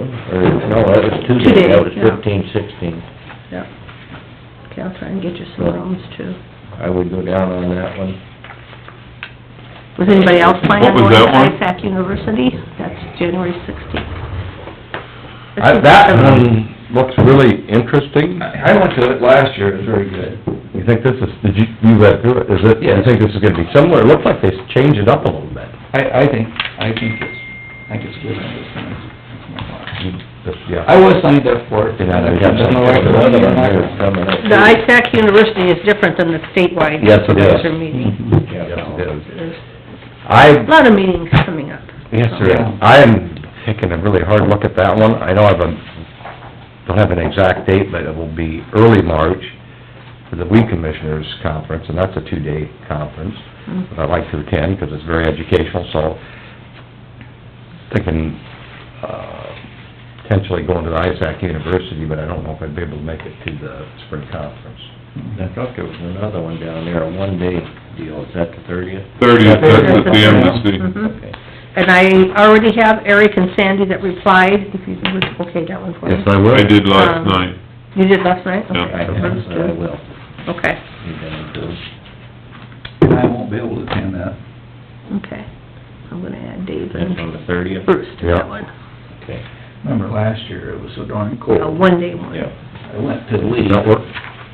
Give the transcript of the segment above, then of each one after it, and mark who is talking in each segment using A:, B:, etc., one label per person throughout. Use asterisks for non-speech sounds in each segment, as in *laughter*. A: Or, no, that was Tuesday,
B: Today,
A: that was
B: yeah.
A: fifteen, sixteen.
B: Yep. Okay, I'll try and get you some rooms too.
A: I would go down on that one.
B: Was anybody else planning
C: What was
B: on going
C: that one?
B: to ISAC University? That's January sixteenth.
C: I- That one looks really interesting.
A: I I went to it last year, it was very good.
C: You think this is, did you, you read through it, is it, you
A: Yes.
C: think this is gonna be similar? It looks like they changed it up a little bit.
D: I, I think, I think it's, I think it's a good idea. That's my thought. I
C: Yeah.
D: was signed up for it.
C: Yeah, I
D: I
C: think
D: just don't know why
C: that's-
D: it wasn't in my-
B: The ISAC University is different than the statewide.
C: Yes, it is.
B: Their meeting.
A: Yeah,
C: Yes, it is.
B: There's
C: I,
B: a lot of meetings coming up.
C: yes, sir,
D: Yeah.
C: I am taking a really hard look at that one. I don't have a, don't have an exact date, but it will be early March for the weed commissioners conference, and that's a two-day conference.
B: Mm.
C: that I like to attend, because it's very educational, so thinking, uh, potentially going to the ISAC University, but I don't know if I'd be able to make it to the spring conference.
A: I thought there was another one down there, a one-day deal, is that the thirtieth?
C: Yeah,
E: Thirtieth, that's at
B: That's
E: the
B: a-
E: embassy.
B: Mhm. And I already have Eric and Sandy that replied, if you would, okay, that one for me.
C: I will.
E: I did last
B: Um,
E: night.
B: You did last night? Okay,
E: Yeah.
A: I
B: so
A: have,
B: those
A: so I
B: two.
A: will.
B: Okay,
A: You down too?
D: I won't be able to attend that.
B: okay. I'm gonna add Dave
A: That's
B: and
A: on the thirtieth?
B: Bruce to
C: Yeah.
B: that one,
A: Okay.
D: Remember last year, it was so darn
B: a
D: cold.
B: one-day one.
D: I went to leave,
C: That work?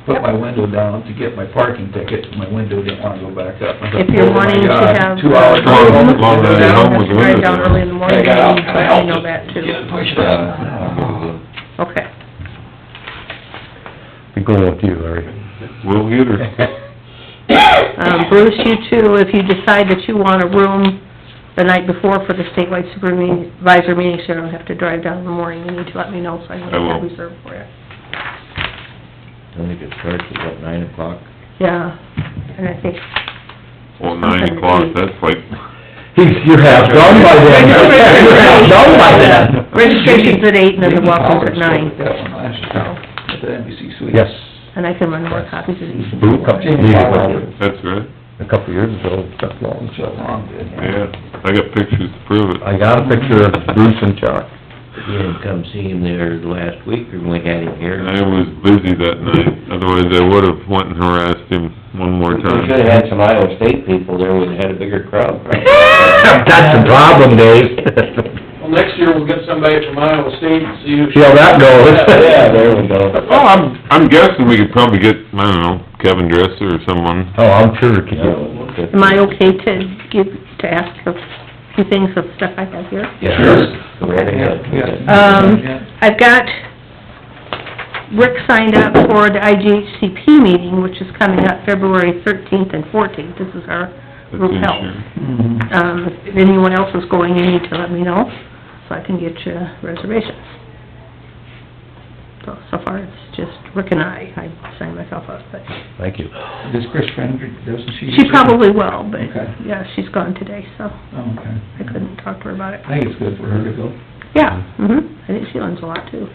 D: put my window down to get my parking ticket, and my window didn't wanna go back up. I thought,
B: If you're
D: "Oh my
B: wanting to
D: God,
B: have.
D: Two hours.
E: Long-
D: home,
B: Drive
E: long ride
B: down,
E: home
B: have
E: with
B: to drive
E: window
B: down
E: down.
B: early in the morning,
D: I got out, I
B: I know
D: helped
B: that
D: get
B: too.
D: it pushed out.
B: Okay.
C: Be going with you,
A: *laughs*
C: Larry.
E: We'll get her.
B: Um, Bruce, you too, if you decide that you want a room the night before for the statewide supervisor meeting, so you don't have to drive down in the morning, you need to let me know so I
E: I will.
B: can reserve for it.
A: I think it starts at what, nine o'clock?
B: Yeah, and I think
E: Well, nine o'clock, that's like,
C: He's, you're half done by then.
A: *laughs*
C: You're half done by then.
B: registration's at eight and then the
D: Maybe
B: welcome's at
D: Howard
B: nine,
D: spoke at That one last
B: so,
D: year, at the NBC suite.
C: Yes.
B: and I can run more copies of these.
C: Boo, couple years ago,
E: that's right,
C: a couple years ago, that long,
D: So
C: so.
D: long, good.
E: yeah. I got pictures to prove it.
C: I got a picture of Bruce and Chuck.
A: You didn't come see him there last week, or we had him here?
C: Uh-huh.
E: I was busy that night, otherwise I would've went and harassed him one more
A: We
E: time.
A: should've had some Iowa State people there, we'd had a bigger crowd.
C: *laughs* That's the problem, Dave.
F: Well, next year we'll get somebody from Iowa State and see who.
C: See how that
A: *laughs*
C: goes. Oh,
A: Yeah, there we go.
E: Well, I'm, I'm guessing we could probably get, I don't know, Kevin Dresser or someone.
C: Oh, I'm sure it could
A: Yeah,
C: go.
A: we'll look at-
B: Am I okay to give, to ask a few things of stuff I have here?
A: Yeah. Go right ahead.
B: Um, I've got Rick signed up for the IGHCP meeting, which is coming up February thirteenth and fourteenth. This is our
E: that's
B: group health.
E: insurance.
D: Mhm.
B: Um, if anyone else is going, you need to let me know, so I can get you reservations. So, so far, it's just Rick and I. I signed myself up, but
C: Thank you.
D: Does Chris Fender, doesn't she?
B: she probably will, but,
D: Okay.
B: yeah, she's gone today, so
D: Oh, Okay.
B: I couldn't talk to her about it.
D: I think it's good for her to go.
B: Yeah, mhm. I think she learns a lot, too.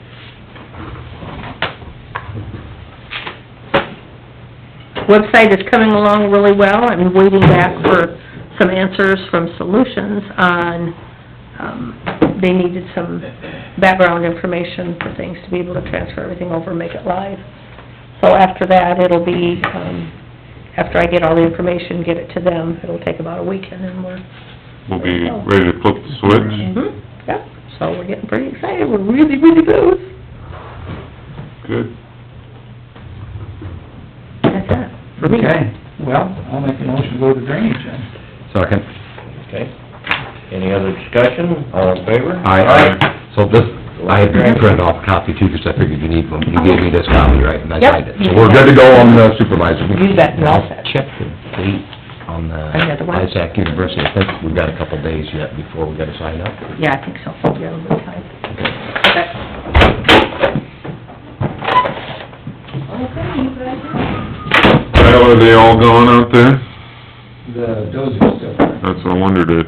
B: Website is coming along really well. I'm waiting back for some answers from Solutions on, um, they needed some background information for things to be able to transfer everything over and make it live. So after that, it'll be, um, after I get all the information, get it to them, it'll take about a week and then we're
E: We'll be ready to flip the switch.
B: Mhm, Yep, so we're getting pretty excited, we're really, really close.
E: Good.
B: That's it, for me.
D: Okay, well, I'll make a motion to go to drainage then.
C: Second.
A: Okay. Any other discussion? All in favor?
C: So this, I had printed off a copy too, because I figured you need one. You gave me this copy, right? And I
B: Yep.
C: signed it. So we're good to go on the supervisor.
B: You bet, you're all set.
C: Check the date on the
B: Another one?
C: ISAC University. I think we've got a couple days yet before we gotta sign up.
B: Yeah, I think so, yeah, a little time. Okay.
E: Kyle, are they all gone out there?
D: The dozer's still there.
E: That's what I wondered if.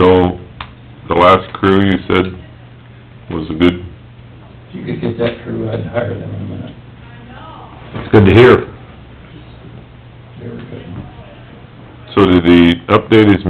E: So, the last crew you said was a good,
D: If you could get that crew, I'd hire them in a minute.
C: It's good to hear.
D: They were good.
E: so did he update his